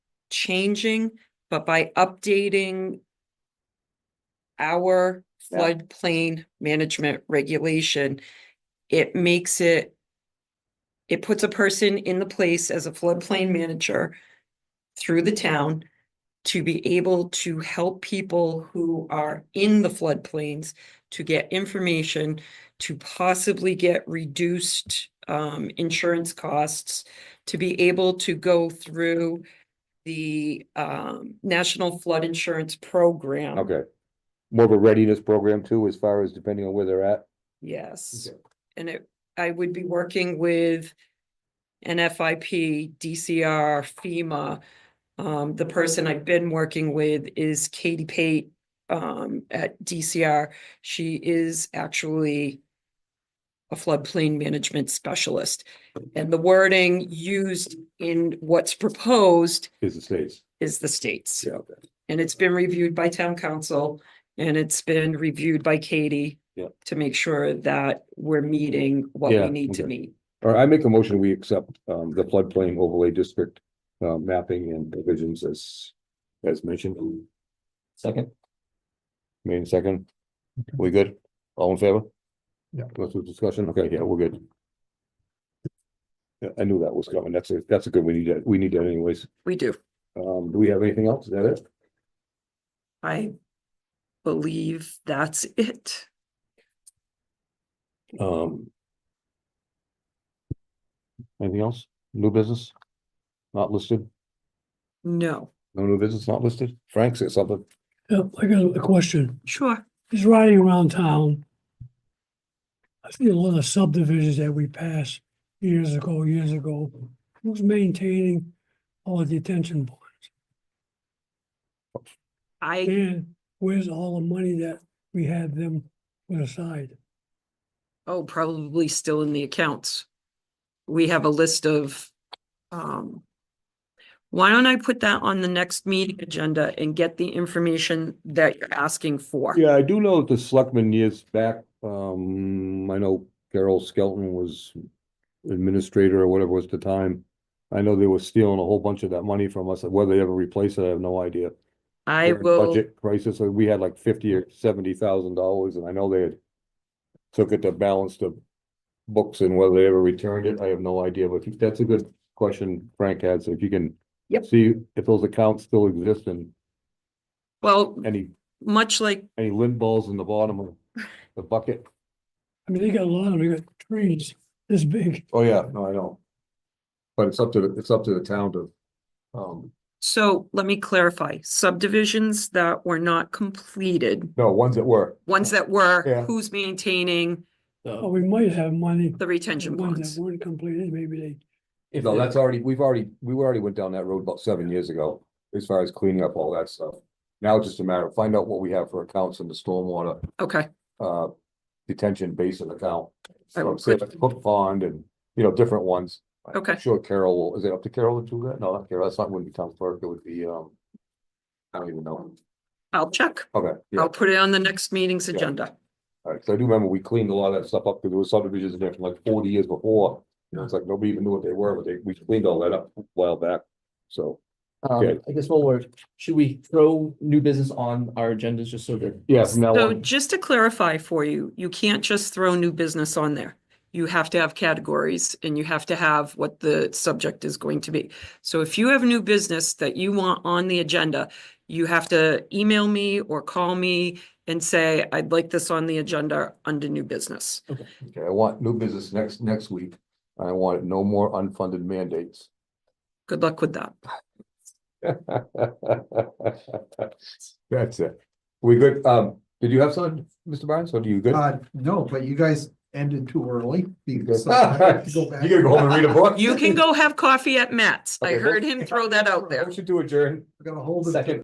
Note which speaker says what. Speaker 1: changing, but by updating our
Speaker 2: Yeah.
Speaker 1: floodplain management regulation, it makes it it puts a person in the place as a floodplain manager through the town to be able to help people who are in the floodplains to get information, to possibly get reduced um insurance costs, to be able to go through the um National Flood Insurance Program.
Speaker 2: Okay. More of a readiness program too, as far as depending on where they're at.
Speaker 1: Yes,
Speaker 2: Okay.
Speaker 1: and it, I would be working with NFIP, DCR, FEMA. Um, the person I've been working with is Katie Pate, um, at DCR. She is actually a floodplain management specialist. And the wording used in what's proposed
Speaker 2: Is the states.
Speaker 1: is the states.
Speaker 2: Yeah. okay.
Speaker 1: And it's been reviewed by town council and it's been reviewed by Katie.
Speaker 2: Yeah.
Speaker 1: To make sure that we're meeting what we
Speaker 2: Yeah,
Speaker 1: need to
Speaker 2: okay.
Speaker 1: meet.
Speaker 2: All right, I make a motion, we accept um the floodplain overlay district uh mapping and provisions as as mentioned.
Speaker 3: Second,
Speaker 2: Made in second. We good? All in favor?
Speaker 3: Yeah.
Speaker 2: Go through discussion. Okay, yeah, we're good. Yeah, I knew that was coming. That's a, that's a good, we need that, we need that anyways.
Speaker 1: We do.
Speaker 2: Um, do we have anything else? Is that it?
Speaker 1: I believe that's it.
Speaker 2: Um. Anything else? New business? Not listed?
Speaker 1: No.
Speaker 2: No new business not listed? Frank said something.
Speaker 4: Yeah, I got a question.
Speaker 1: Sure.
Speaker 4: Just riding around town. I see a lot of subdivisions that we passed years ago, years ago. Who's maintaining all the detention bonds?
Speaker 1: I,
Speaker 4: And where's all the money that we had them put aside?
Speaker 1: oh, probably still in the accounts. We have a list of, um, why don't I put that on the next meeting agenda and get the information that you're asking for?
Speaker 2: Yeah, I do know that the selectmen years back, um, I know Carol Skelton was administrator or whatever was the time. I know they were stealing a whole bunch of that money from us. Whether they ever replace it, I have no idea.
Speaker 1: I
Speaker 2: during
Speaker 1: will.
Speaker 2: Budget crisis, and we had like fifty or seventy thousand dollars, and I know they had took it to balance the books and whether they ever returned it, I have no idea, but if- that's a good question Frank had, so if you can
Speaker 1: Yep.
Speaker 2: see if those accounts still exist and
Speaker 1: Well,
Speaker 2: any,
Speaker 1: much like
Speaker 2: any lint balls in the bottom of the bucket.
Speaker 4: I mean, they got a lot of, they got trees this big.
Speaker 2: Oh, yeah, no, I know. But it's up to, the it's up to the town to, um,
Speaker 1: So let me clarify, subdivisions that were not completed,
Speaker 2: no, ones that were.
Speaker 1: ones that were,
Speaker 2: Yeah.
Speaker 1: who's maintaining
Speaker 4: Oh, we might have money.
Speaker 1: the
Speaker 4: for
Speaker 1: retention
Speaker 4: ones
Speaker 1: bonds?
Speaker 4: that weren't completed, maybe they,
Speaker 3: if,
Speaker 2: No,
Speaker 3: the-
Speaker 2: that's already, we've already, we already went down that road about seven years ago, as far as cleaning up all that stuff. Now it's just a matter of find out what we have for accounts in the stormwater,
Speaker 1: Okay,
Speaker 2: uh, detention basin account.
Speaker 1: I will
Speaker 2: So say like Hook pond and, you know, different ones.
Speaker 1: Okay.
Speaker 2: I'm Sure Carol, will- is it up to Carol to do that? No, not Carol, that's not, wouldn't be town clerk, it would be, um, I don't even know.
Speaker 1: I'll check.
Speaker 2: Okay, yeah,
Speaker 1: I'll put it on the next meeting's agenda.
Speaker 2: all right, so I do remember we cleaned a lot of that stuff up, because there was subdivisions in there from like forty years before. You know, it's like nobody even knew what they were, but they, we cleaned all that up a while back, so.
Speaker 3: um, I guess one word, should we throw new business on our agendas just so that?
Speaker 2: Yeah, from now
Speaker 1: So
Speaker 2: on.
Speaker 1: just to clarify for you, you can't just throw new business on there. You have to have categories and you have to have what the subject is going to be. So if you have new business that you want on the agenda, you have to email me or call me and say, I'd like this on the agenda under new business.
Speaker 2: Okay, I want new business next, next week. and I want no more unfunded mandates.
Speaker 1: Good luck with that.
Speaker 2: That's it. We good, um, did you have something, Mr. Barnes, or do you good?
Speaker 5: Uh, no, but you guys ended too early.
Speaker 2: You
Speaker 5: because I have to back.
Speaker 2: gotta go home and read a book?
Speaker 1: You can go have coffee at Matt's. I
Speaker 2: Okay,
Speaker 1: heard him throw that out there.
Speaker 2: Motion to adjourn,
Speaker 5: I gotta hold it.
Speaker 2: second.